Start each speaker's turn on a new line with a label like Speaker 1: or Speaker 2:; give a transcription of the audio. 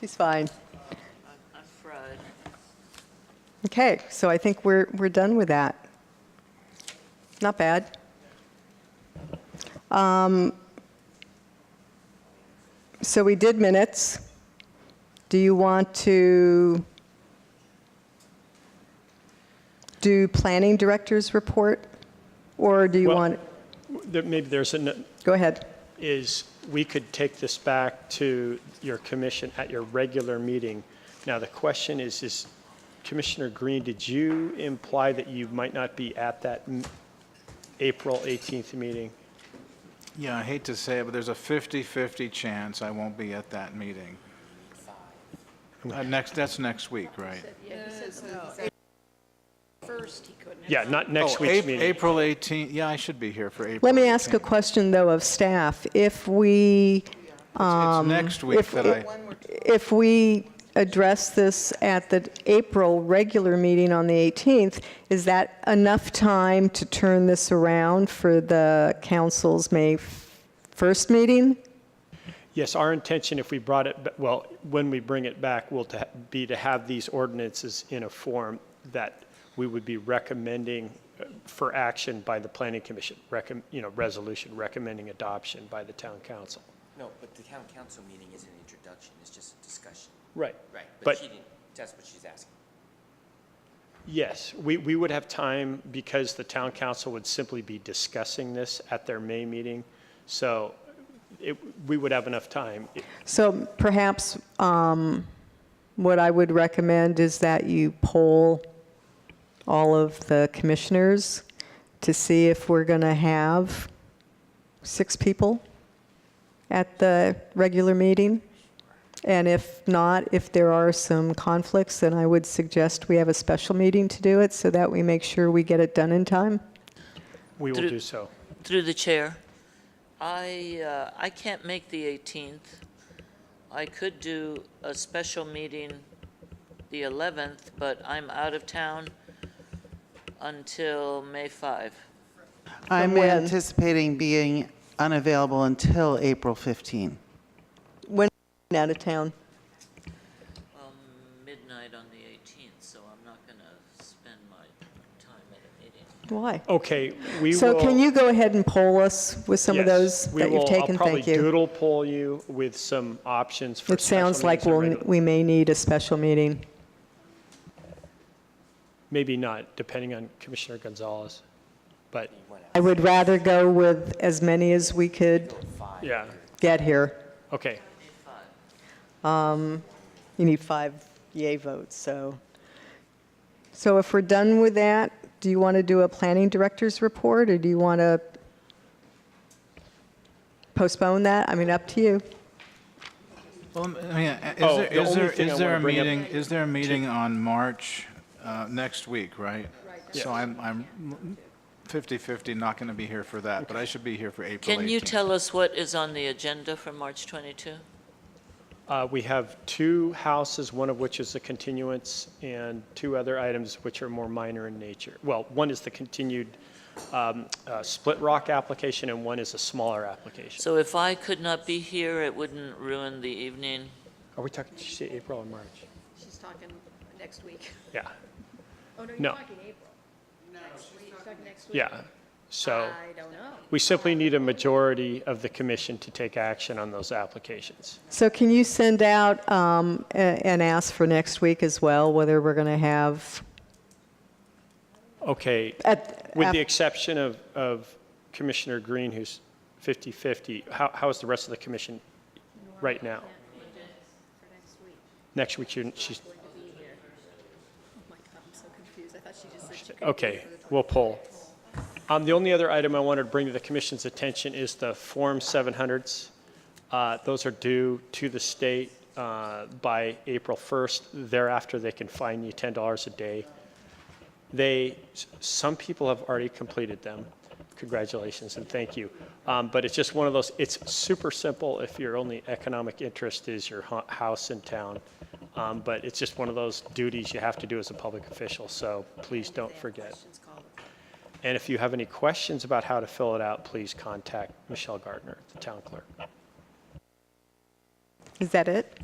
Speaker 1: She's fine.
Speaker 2: I'm fried.
Speaker 1: Okay, so I think we're, we're done with that. Not bad. Um, So we did minutes. Do you want to do planning director's report? Or do you
Speaker 3: Well-
Speaker 1: want,
Speaker 3: There- Maybe there's, an
Speaker 1: go ahead.
Speaker 3: is, we could take this back to your commission at your regular meeting. Now, the question is, is Commissioner Green, did you imply that you might not be at that m- April 18th meeting?
Speaker 4: Yeah, I hate to say it, but there's a 50/50 chance I won't be at that meeting. Uh, Next, that's next week, right?
Speaker 5: First, he couldn't.
Speaker 3: Yeah, not next
Speaker 4: Oh,
Speaker 3: week's
Speaker 4: Ap-
Speaker 3: meeting.
Speaker 4: April 18th, yeah, I should be here for April 18th.
Speaker 1: Let me ask a question, though, of staff. If we
Speaker 4: It's next
Speaker 1: um,
Speaker 4: week
Speaker 1: if-
Speaker 4: that I,
Speaker 1: If we address this at the April regular meeting on the 18th, is that enough time to turn this around for the council's May 1st meeting?
Speaker 3: Yes, our intention, if we brought it, ba- well, when we bring it back, will to ha- be to have these ordinances in a form that we would be recommending uh, for action by the planning commission, recom, you know, resolution recommending adoption by the town council.
Speaker 6: No, but the town council meeting is an introduction, it's just a discussion,
Speaker 3: Right.
Speaker 6: right? But
Speaker 3: But-
Speaker 6: she didn't, that's what she's asking.
Speaker 3: Yes, we, we would have time because the town council would simply be discussing this at their May meeting. So it, we would have enough time.
Speaker 1: So perhaps um, what I would recommend is that you poll all of the commissioners to see if we're going to have six people at the regular meeting. And if not, if there are some conflicts, then I would suggest we have a special meeting to do it so that we make sure we get it done in time.
Speaker 3: We will
Speaker 2: Through-
Speaker 3: do so.
Speaker 2: Through the chair, I, uh, I can't make the 18th. I could do a special meeting the 11th, but I'm out of town until May 5.
Speaker 1: From
Speaker 7: I'm
Speaker 1: when?
Speaker 7: anticipating being unavailable until April 15.
Speaker 1: When out of town.
Speaker 2: Well, um, midnight on the 18th, so I'm not going to spend my time at a meeting.
Speaker 1: Why?
Speaker 3: Okay, we will.
Speaker 1: So can you go ahead and poll us with some of
Speaker 3: Yes,
Speaker 1: those
Speaker 3: we
Speaker 1: that you've
Speaker 3: will-
Speaker 1: taken?
Speaker 3: I'll probably
Speaker 1: Thank you.
Speaker 3: doodle poll you with some options for
Speaker 1: It
Speaker 3: special
Speaker 1: sounds like
Speaker 3: meetings and
Speaker 1: we'll,
Speaker 3: regular-
Speaker 1: we may need a special meeting.
Speaker 3: Maybe not, depending on Commissioner Gonzalez. But,
Speaker 1: I would rather go with as many as we could
Speaker 3: yeah,
Speaker 1: get here.
Speaker 3: okay.
Speaker 1: You need five yay votes, so. So if we're done with that, do you want to do a planning director's report, or do you want to postpone that? I mean, up to you.
Speaker 4: well, I mean, is
Speaker 3: Oh,
Speaker 4: there,
Speaker 3: the
Speaker 4: is
Speaker 3: only
Speaker 4: there,
Speaker 3: thing I
Speaker 4: is there a
Speaker 3: wanna bring up-
Speaker 4: meeting, is there a meeting on March, uh, next week, right? So I'm, I'm 50/50, not going to be here for that, but I should be here for April 18th.
Speaker 2: Can you tell us what is on the agenda for March 22?
Speaker 3: Uh, We have two houses, one of which is a continuance, and two other items which are more minor in nature. Well, one is the continued um, uh, Split Rock application, and one is a smaller application.
Speaker 2: So if I could not be here, it wouldn't ruin the evening.
Speaker 3: Are we talking, did you say April or March?
Speaker 5: She's talking next week.
Speaker 3: Yeah,
Speaker 5: Oh, no,
Speaker 3: No.
Speaker 5: you're talking April. No. She's talking next week.
Speaker 3: yeah. So
Speaker 5: I don't know.
Speaker 3: we simply need a majority of the commission to take action on those applications.
Speaker 1: So can you send out um, a- and ask for next week as well, whether we're going to have,
Speaker 3: Okay,
Speaker 1: at,
Speaker 3: With the exception of, of Commissioner Green, who's 50/50, how, how is the rest of the commission right now? Next week, you're, she's,
Speaker 5: Oh my God, I'm so confused. I thought she just said she could.
Speaker 3: okay, we'll pull. Um, the only other item I wanted to bring to the commission's attention is the Form 700s. Uh, those are due to the state, uh, by April 1st. Thereafter, they can fine you $10 a day. They, s- some people have already completed them. Congratulations and thank you. Um, But it's just one of those, it's super simple if your only economic interest is your hu- house in town. Um, But it's just one of those duties you have to do as a public official, so please don't forget. And if you have any questions about how to fill it out, please contact Michelle Gardner, the town clerk.
Speaker 1: is that it?